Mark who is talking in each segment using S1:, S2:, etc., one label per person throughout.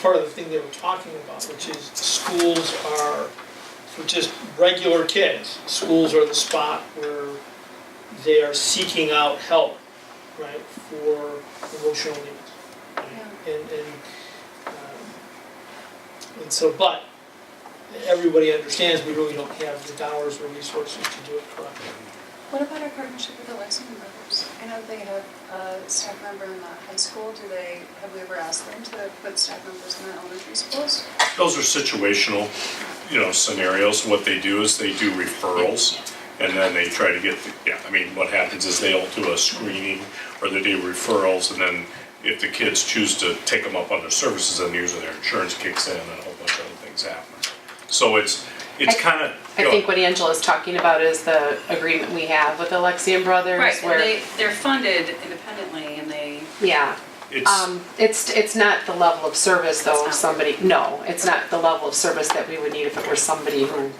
S1: part of the thing they were talking about, which is schools are, for just regular kids, schools are the spot where they are seeking out help, right, for emotional needs. right? And, and, um, and so, but, everybody understands we really don't have the dollars or resources to do it correctly.
S2: What about our partnership with the Lexington Brothers? I know they have a staff member in the high school. Do they, have we ever asked them to put staff members in the elementary schools?
S3: Those are situational, you know, scenarios. What they do is they do referrals, and then they try to get, the- yeah, I mean, what happens is they'll do a screening, or they do referrals, and then if the kids choose to take them up on their services, then usually their insurance kicks in, and a whole bunch of other things happen. So it's, it's
S4: I-
S3: kind of.
S4: I think what Angela's talking about is the agreement we have with Alexian Brothers.
S5: Right, and
S4: where-
S5: they, they're funded independently and they,
S4: Yeah,
S3: It's,
S4: um, it's, it's not the level of service
S5: It's
S4: though,
S5: not.
S4: of somebody, no, it's not the level of service that we would need if it were somebody who,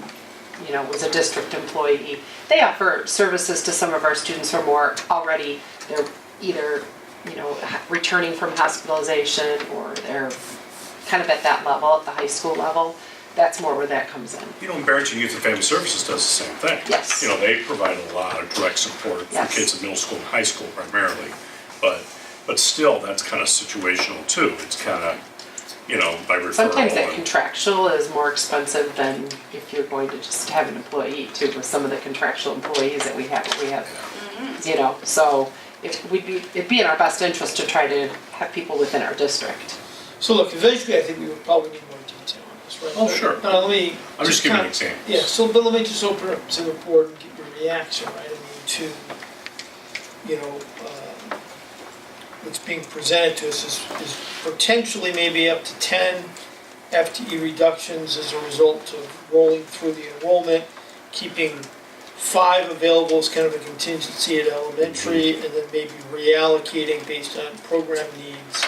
S4: you know, was a district employee. They offer services to some of our students who are more already, they're either, you know, ha- returning from hospitalization or they're kind of at that level, at the high school level. That's more where that comes in.
S3: you know, Barrington Youth and Family Services does the same thing.
S4: Yes.
S3: You know, they provide a lot of direct support for
S4: Yes.
S3: kids in middle school and high school primarily. But, but still, that's kind of situational too. It's kind of, you know, by referral.
S4: Sometimes that
S3: and-
S4: contractual is more expensive than if you're going to just have an employee too, with some of the contractual employees that we have, we have. You know, so it would be, it'd be in our best interest to try to have people within our district.
S1: So look, eventually, I think we would probably need more detail on this, right?
S3: Oh, sure.
S1: Now, let me.
S3: I'm just giving
S1: kind-
S3: examples.
S1: Yeah, so, but let me just open up to the board and get your reaction, right, I mean, to, you know, uh, what's being presented to us is, is potentially maybe up to ten FTE E reductions as a result of rolling through the enrollment, keeping five available as kind of a contingency at elementary, and then maybe reallocating based on program needs,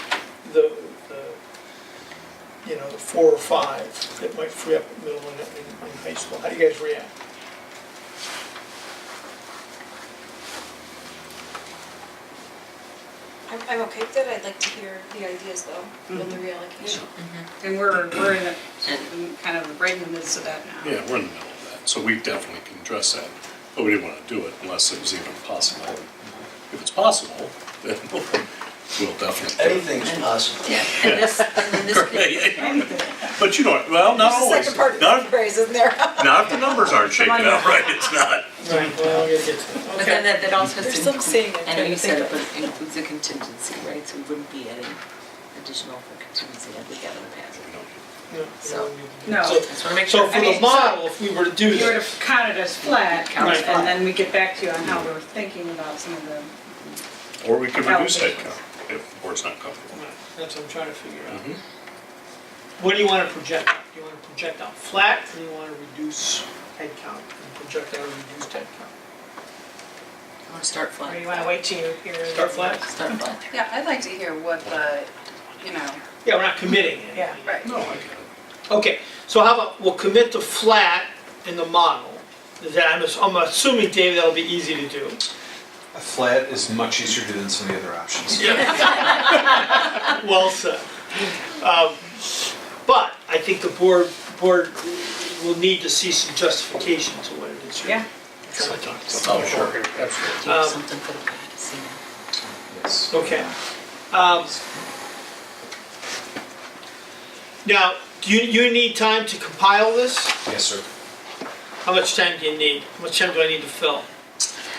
S1: the, the, you know, the four or five that might free up at middle and, and and high school. How do you guys react?
S6: I'm, I'm okay with it, I'd like to hear the ideas though, with the reallocation.
S5: and we're, we're in the, kind of right in the midst of that now.
S3: Yeah, we're in the middle of that, so we definitely can address that, but we didn't want to do it unless it was even possible. If it's possible, then we'll definitely.
S7: Anything's possible.
S5: Yeah, and this, and then this could
S3: But you know, well, not
S6: There's a
S3: always,
S6: second part of
S3: not,
S6: the phrase, isn't there?
S3: not if the numbers aren't shaking out right, it's not.
S1: Right. Well, I gotta get to that.
S8: But then
S1: Okay.
S8: that, that also has
S6: There's
S8: to
S6: some saying I'm
S8: include, I know
S6: trying
S8: you
S6: to
S8: said it,
S6: think
S8: but it includes a contingency, right? So we wouldn't be adding additional for contingency like we have in the past.
S1: Yeah,
S8: So-
S1: yeah.
S9: No.
S1: So-
S8: Just wanna make
S1: So
S8: sure.
S1: for
S9: I
S1: the
S9: mean,
S1: model, if we were to do
S9: If you were
S1: that,
S9: to count it as flat,
S8: Count
S1: it
S9: and then we get back to you on how we're thinking about some of the,
S3: Or we could reduce headcount if the board's not comfortable.
S1: that's what I'm trying to figure out.
S3: Mhm.
S1: What do you wanna project out? Do you wanna project out flat, or do you wanna reduce headcount and project out a reduced headcount?
S8: I wanna start
S9: or
S8: flying.
S9: you want to wait till you hear.
S1: Start flat?
S8: Start flying.
S5: Yeah, I'd like to hear what the, you know,
S1: Yeah, we're not committing anything.
S9: Yeah.
S5: right.
S3: No, I get it.
S1: Okay, so how about, we'll commit to flat in the model. Is that, I'm, ass- I'm assuming, Dave, that'll be easy to do.
S10: A flat is much easier to do than some of the other options.
S1: Well said. Um, But I think the board, board will need to see some justification to what it is. you're
S9: Yeah.
S1: trying to talk about.
S3: Oh, sure,
S8: Do
S3: absolutely.
S8: you have
S1: Um,
S8: something for the guy to see now?
S10: Yes.
S1: Okay. Um, Now, do you, you need time to compile this?
S10: Yes, sir.
S1: How much time do you need? How much time do I need to fill?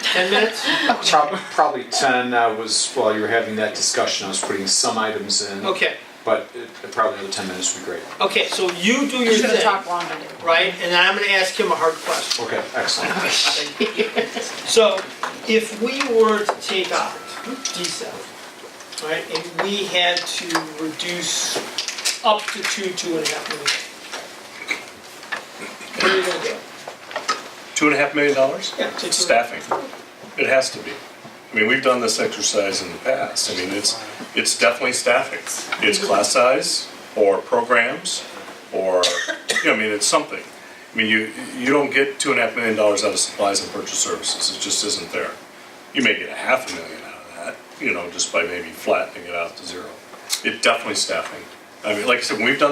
S1: Ten minutes?
S10: Prob- Probably 10, I was, while you were having that discussion, I was putting some items in.
S1: Okay,
S10: But it- probably another 10 minutes would be great.
S1: okay, so you do your
S9: Should have
S1: thing,
S9: talked longer. didn't we?
S1: right? And then I'm gonna ask him a hard question.
S10: Okay, excellent.
S1: So if we were to take out D7, right, and we had to reduce up to two, two and a half million. What are you gonna do?
S3: Two and a half million dollars?
S1: Yeah, to- to-
S3: Staffing. It has to be. I mean, we've done this exercise in the past. I mean, it's, it's definitely staffing. It's class size or programs or, you know, I mean, it's something. I mean, you, you don't get two and a half million dollars out of supplies and purchase services. It just isn't there. You may get a half a million out of that, you know, just by maybe flattening it out to zero. It definitely staffing. I mean, like I said, when we've done